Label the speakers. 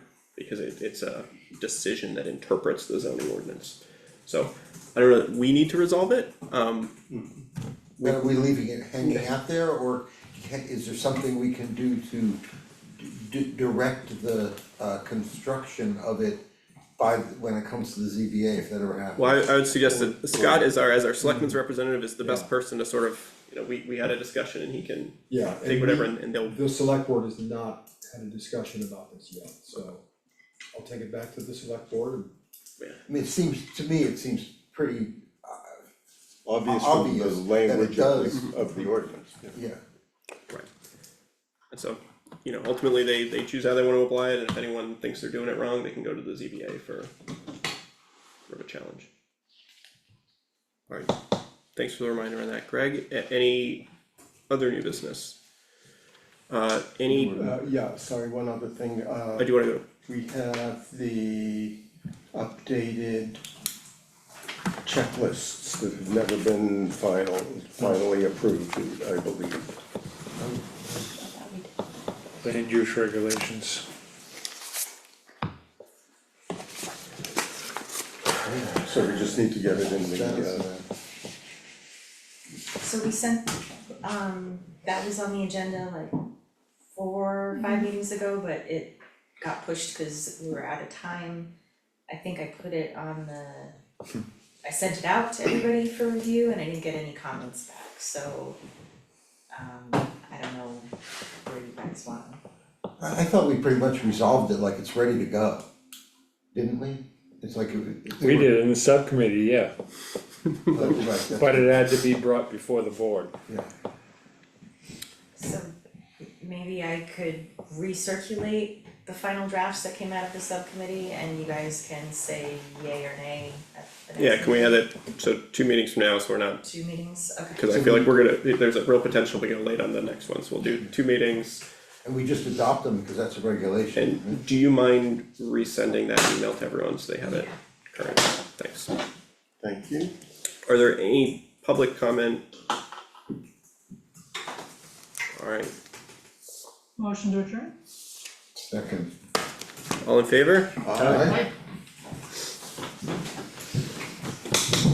Speaker 1: because it, it's a decision that interprets the zoning ordinance. So, I don't know, we need to resolve it, um,
Speaker 2: Are we leaving it hanging out there, or ca- is there something we can do to d- direct the uh construction of it by, when it comes to the ZBA, if that ever happens?
Speaker 1: well, I, I would suggest that Scott is our, as our selectman's representative, is the best
Speaker 3: Yeah.
Speaker 1: person to sort of, you know, we, we had a discussion and he can
Speaker 3: Yeah. and
Speaker 1: take whatever
Speaker 3: we-
Speaker 1: and, and they'll,
Speaker 3: The select board has not had a discussion about this yet, so I'll take it back to the select board and
Speaker 2: I mean, it seems, to me, it seems pretty,
Speaker 4: obvious from the
Speaker 2: Obvious that it
Speaker 4: language of
Speaker 2: does.
Speaker 4: the, of the ordinance.
Speaker 2: yeah,
Speaker 1: right. And so, you know, ultimately, they, they choose how they wanna apply it, and if anyone thinks they're doing it wrong, they can go to the ZBA for sort of a challenge. Alright, thanks for the reminder on that, Greg, A- any other new business? Uh, any,
Speaker 5: Uh, yeah, sorry, one other thing, uh,
Speaker 1: I do wanna go,
Speaker 5: we have the updated
Speaker 4: Checklists that have never been final, finally approved, I believe.
Speaker 6: land use regulations.
Speaker 4: So we just need to get it in the, uh,
Speaker 2: that's,
Speaker 7: So we sent, um, that was on the agenda like four, five meetings ago, but it got pushed because we were out of time. I think I put it on the, I sent it out to everybody for review and I didn't get any comments back, so um, I don't know where you guys want.
Speaker 2: I I thought we pretty much resolved it, like it's ready to go, didn't we? It's like. it- it-
Speaker 6: We did in the subcommittee, yeah,
Speaker 2: Right, that's-
Speaker 6: but it had to be brought before the board.
Speaker 2: yeah.
Speaker 7: So maybe I could recirculate the final drafts that came out of the subcommittee and you guys can say yay or nay at the next
Speaker 1: yeah, can we have that, so two meetings from now, so we're not,
Speaker 7: Two meetings, okay.
Speaker 1: cause I feel like we're gonna, there's a real potential to go late on the next one, so we'll do two meetings.
Speaker 2: And we just adopt them because that's a regulation.
Speaker 1: And do you mind resending that email to everyone so they have it current? Thanks.
Speaker 4: thank you.
Speaker 1: Are there any public comment? Alright,
Speaker 8: Motion to adjourn?
Speaker 2: Second.
Speaker 1: all in favor?
Speaker 2: Aye.